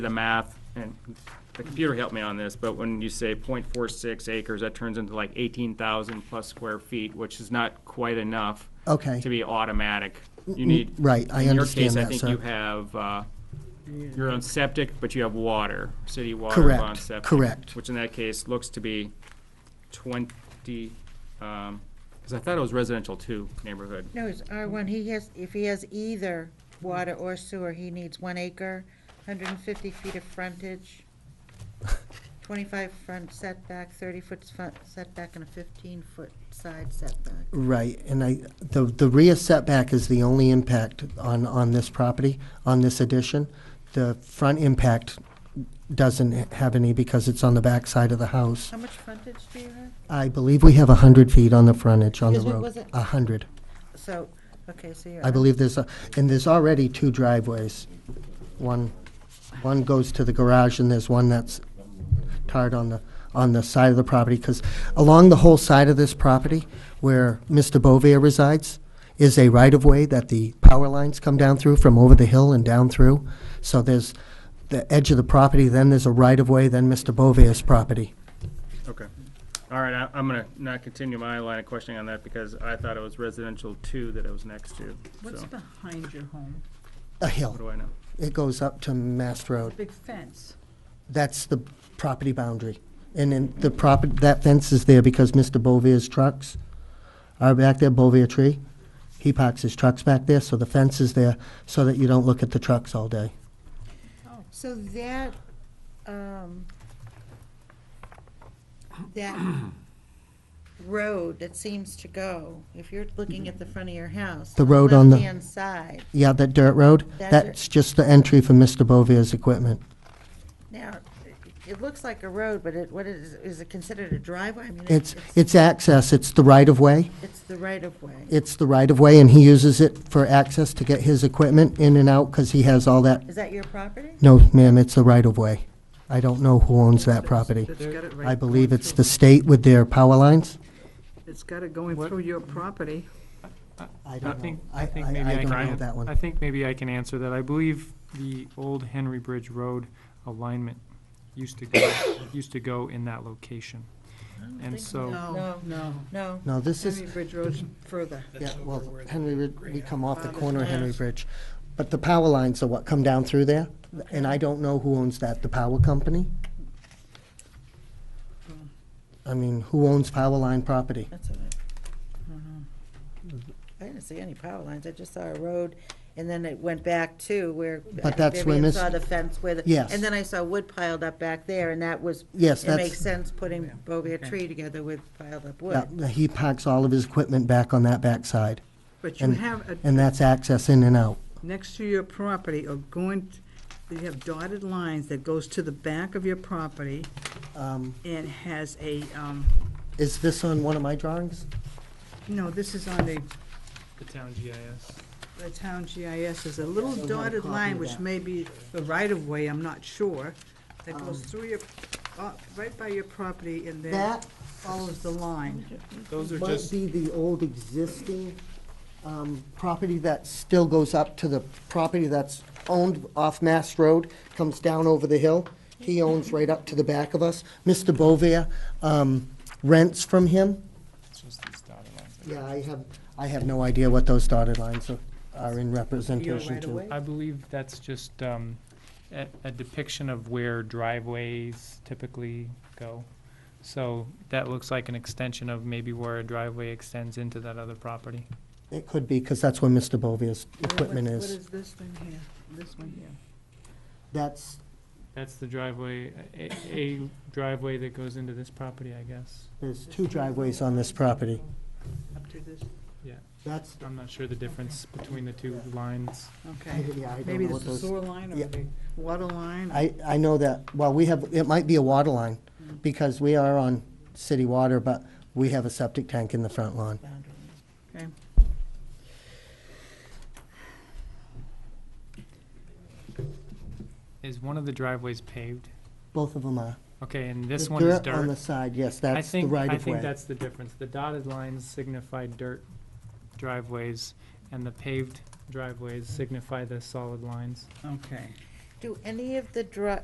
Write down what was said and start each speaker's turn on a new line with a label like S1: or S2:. S1: the math, and the computer helped me on this, but when you say 0.46 acres, that turns into like eighteen thousand plus square feet, which is not quite enough.
S2: Okay. Mm,
S1: To be automatic. You need.
S2: right, I understand that,
S1: In your case, I
S2: sir.
S1: think you have, uh, you're on septic, but you have water, city water
S2: Correct,
S1: on septic.
S2: correct.
S1: Which in that case looks to be twenty, um, because I thought it was residential two neighborhood.
S3: No, it's R1, he has, if he has either water or sewer, he needs one acre, 150 feet of frontage, 25 front setback, 30-foot setback, and a 15-foot side setback.
S2: Right, and I, the, the rear setback is the only impact on, on this property, on this addition. The front impact doesn't have any because it's on the back side of the house.
S3: How much frontage do you have?
S2: I believe we have a hundred feet on the frontage on the
S3: Excuse me,
S2: road.
S3: was it-
S2: A hundred.
S3: So, okay, so you're.
S2: I believe there's, a- and there's already two driveways. One, one goes to the garage and there's one that's tarred on the, on the side of the property. Because along the whole side of this property where Mr. Bovier resides is a right-of-way that the power lines come down through from over the hill and down through. So there's the edge of the property, then there's a right-of-way, then Mr. Bovier's property.
S1: Okay. All right, I- I'm going to not continue my line of questioning on that because I thought it was residential two that it was next to.
S4: What's
S1: So,
S4: behind your home?
S2: A
S1: what
S2: hill.
S1: do I know?
S2: It goes up to Mast Road.
S4: Big fence.
S2: That's the property boundary. And then the property, that fence is there because Mr. Bovier's trucks are back there, Bovier Tree. He parks his trucks back there, so the fence is there so that you don't look at the trucks all day.
S3: So that, um, that road that seems to go, if you're looking at the front of your house.
S2: The road on the-
S3: Left-hand side.
S2: Yeah, that dirt road,
S3: That dirt-
S2: that's just the entry for Mr. Bovier's equipment.
S3: Now, it- it looks like a road, but it, what is, is it considered a driveway? I mean, it-
S2: It's, it's access, it's the right-of-way.
S3: It's the right-of-way.
S2: It's the right-of-way, and he uses it for access to get his equipment in and out because he has all that.
S3: Is that your property?
S2: No, ma'am, it's the right-of-way. I don't know who owns that property. I believe it's the state with their power lines.
S4: It's got it going through your property.
S2: I
S5: I
S2: don't know.
S5: think, I think maybe
S2: I
S5: I
S2: don't know
S5: can,
S2: that
S5: I
S2: one.
S5: think maybe I can answer that. I believe the old Henry Bridge Road alignment used to go, used to go in that location. And so,
S4: No, Oh, no,
S3: No.
S2: No, this is,
S4: Henry Bridge Road's further.
S2: yeah, well, Henry, Rid- we come off the corner of Henry Bridge. But the power lines are what come down through there, and I don't know who owns that, the power company? I mean, who owns power line property?
S3: That's all right. I didn't see any power lines. I just saw a road, and then it went back to where.
S2: But that's where
S3: Vivian
S2: Miss-
S3: Saw the fence where the.
S2: Yes.
S3: And then I saw wood piled up back there, and that was.
S2: Yes,
S3: It
S2: that's-
S3: makes sense putting Bovia tree together with piled up
S2: Yeah,
S3: wood.
S2: He parks all of his equipment back on that backside,
S4: But you
S2: and,
S4: have, a-
S2: and that's access in and out.
S4: next to your property, or going, t- you have dotted lines that goes to the back of your property
S2: Um,
S4: and has a, um,
S2: Is this on one of my drawings?
S4: no, this is on the,
S5: the town GIS.
S4: the town GIS, there's a little
S2: we have a
S4: dotted
S2: copy
S4: line,
S2: of
S4: which
S2: that.
S4: may be the right-of-way, I'm not sure, that goes through your, uh, right by your property and then.
S2: Um. That
S4: follows the line.
S5: Those are
S2: might
S5: just,
S2: be the old existing um, property that still goes up to the property that's owned off Mass Road, comes down over the hill. He owns right up to the back of us. Mr. Bovier um, rents from him.
S5: it's just these dotted lines.
S2: Yeah, I have, I have no idea what those dotted lines are- are in representation
S4: right
S2: to.
S4: away?
S5: I believe that's just um, a a depiction of where driveways typically go. So that looks like an extension of maybe where a driveway extends into that other property.
S2: It could be, because that's where Mr. Bovier's equipment
S4: What- What
S2: is.
S4: is this thing here? This one here?
S2: That's,
S5: That's the driveway, a- a driveway that goes into this property, I guess.
S2: there's two driveways on this property.
S4: Up to this,
S5: Yeah,
S2: That's,
S5: I'm not sure the difference between the two lines.
S4: okay.
S2: yeah, I don't
S4: Maybe
S2: know
S4: this
S2: what
S4: is
S2: those.
S4: sewer line
S2: yeah.
S4: or the water line?
S2: I, I know that, well, we have, it might be a water line, because we are on city water, but we have a septic tank in the front lawn.
S4: Okay.
S5: Is one of the driveways paved?
S2: Both of them are.
S5: Okay, and this
S2: The
S5: one is
S2: On the
S5: dirt.
S2: side, yes,
S5: I
S2: that's the
S5: think,
S2: right
S5: I
S2: of
S5: think
S2: way.
S5: that's the difference. The dotted lines signify dirt driveways, and the paved driveways signify the solid lines.
S4: Okay.
S3: Do any of the dri,